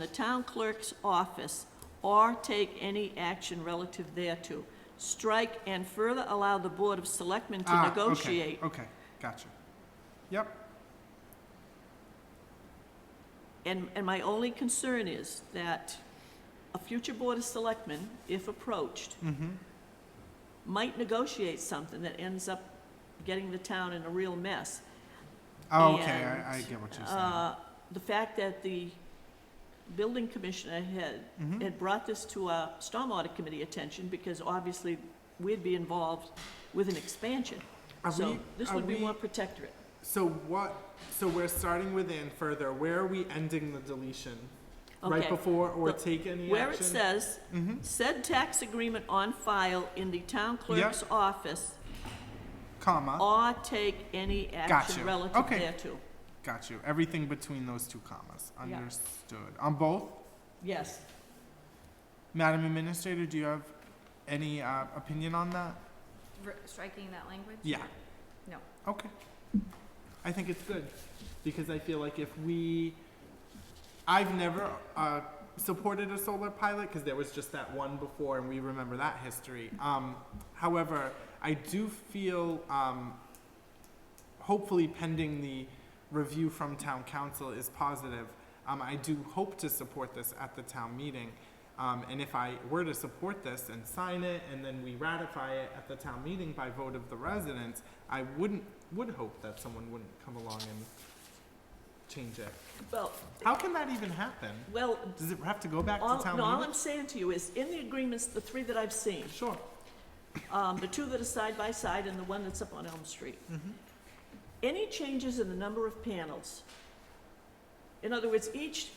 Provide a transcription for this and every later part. the town clerk's office or take any action relative thereto. Strike and further allow the Board of Selectmen to Ah, okay, negotiate. Okay, gotcha. Yep, And, and my only concern is that a future Board of Selectmen, if approached, mm-hmm, might negotiate something that ends up getting the town in a real mess. oh, okay, And, I, I get what you're saying. Uh, The fact that the building commissioner had, Mhm. had brought this to our stormwater committee attention, because obviously we'd be involved with an expansion. Are So we, this are would be we- one protectorate. So what? So we're starting with and further. Where are we ending the deletion? Right Okay. before or The- take any Where it action? says, Mm-hmm, said tax agreement on file in the town clerk's office Uh. comma, or take any Gotcha. action relative Okay. thereto. got you, everything between those two commas, Yeah. understood. On both, Yes, Madam Administrator, do you have any, uh, opinion on that? R- striking that language? Yeah. No. Okay. I think it's good because I feel like if we, I've never uh, supported a solar pilot because there was just that one before, and we remember that history. Um, however, I do feel, um, hopefully, pending the review from town council is positive. Um, I do hope to support this at the town meeting. Um, and if I were to support this and sign it, and then we ratify it at the town meeting by vote of the residents, I wouldn't, would hope that someone wouldn't come along and change it. well, How can that even happen? well, Does it have to go back all, to town no, all meeting? I'm saying to you is, in the agreements, the three that I've seen, Sure. um, the two that are side by side and the one that's up on Elm Street, Mhm. any changes in the number of panels, in other words, each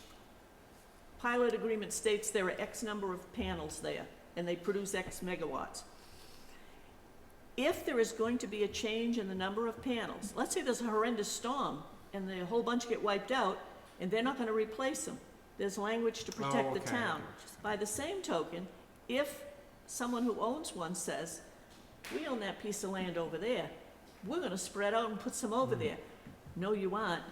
pilot agreement states there are X number of panels there, and they produce X megawatts. If there is going to be a change in the number of panels, let's say there's a horrendous storm, and the whole bunch get wiped out, and they're not gonna replace them, there's language to protect Oh, the okay, I get town. what you're saying. By the same token, if someone who owns one says, we own that piece of land over there, we're gonna spread out and put some Hmm. over there. No, you aren't,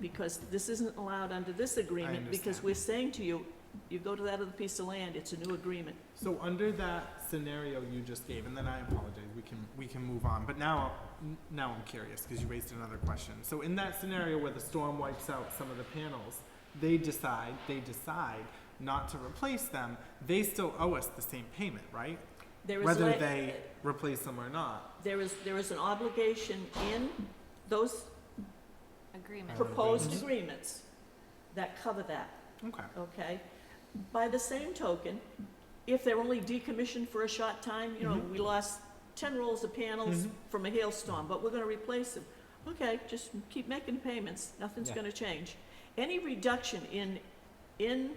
because this isn't allowed under this agreement, because understand. we're saying to you, you go to that other piece of land, it's a new agreement. So under that scenario you just gave, and then I apologize, we can, we can move on, but now, n- now I'm curious, because you raised another question. So in that scenario where the storm wipes out some of the panels, they decide, they decide not to replace them, they still owe us the same payment, right? There is Whether like- they replace them or not. There is, there is an obligation in those Agreement. proposed Agreements. agreements that cover that, Okay. okay? By the same token, if they're only decommissioned for a short time, you know, Mhm. we lost ten rolls of panels Mhm. from a hailstorm, but we're gonna replace them. Okay, just keep making payments, nothing's Yeah. gonna change. Any reduction in, in,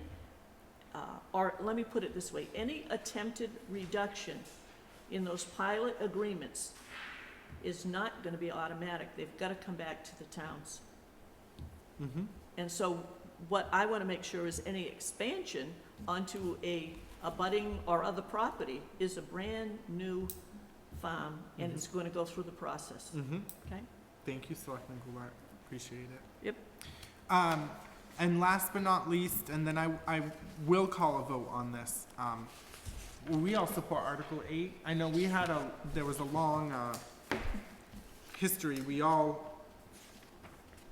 uh, or let me put it this way, any attempted reduction in those pilot agreements is not gonna be automatic. They've gotta come back to the towns. Mm-hmm. And so what I want to make sure is any expansion onto a abutting or other property is a brand-new farm, and it's going to go through the process. Mm-hmm. Okay. Thank you, Selectman Goulart. Appreciate it. Yep. Um, and last but not least, and then I, I will call a vote on this. Um, we all support Article Eight. I know we had a, there was a long, uh, history. We all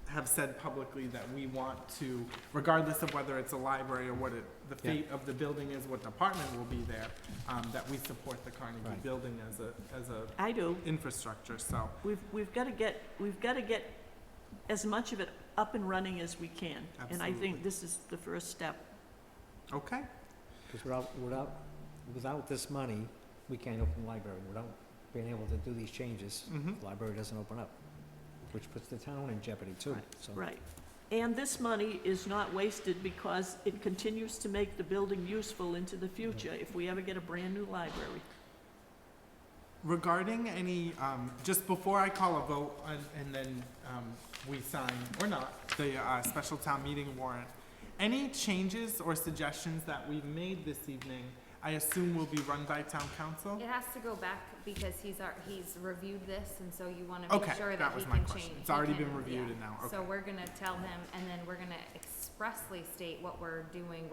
have said publicly that we want to, regardless of whether it's a library or what it, the Yeah. fate of the building is, what department will be there, um, that we support the Carnegie Right. Building as a, as a I do. infrastructure, so. We've, we've got to get, we've got to get as much of it up and running as we can. And I Absolutely. think this is the first step. Okay. Because without, without, without this money, we can't open the library. Without being able to do these changes, Mm-hmm. the library doesn't open up, which puts the town in jeopardy too, so. Right. And this money is not wasted because it continues to make the building useful into the future if we ever get a brand-new library. Regarding any, um, just before I call a vote and, and then, um, we sign or not the, uh, special town meeting warrant, any changes or suggestions that we've made this evening, I assume will be run by town council? It has to go back because he's, ar- he's reviewed this and so you wanna make Okay, sure that that he was can my change. question. It's he already can- been reviewed yeah. and now, okay. So we're gonna tell him and then we're gonna expressly state what we're doing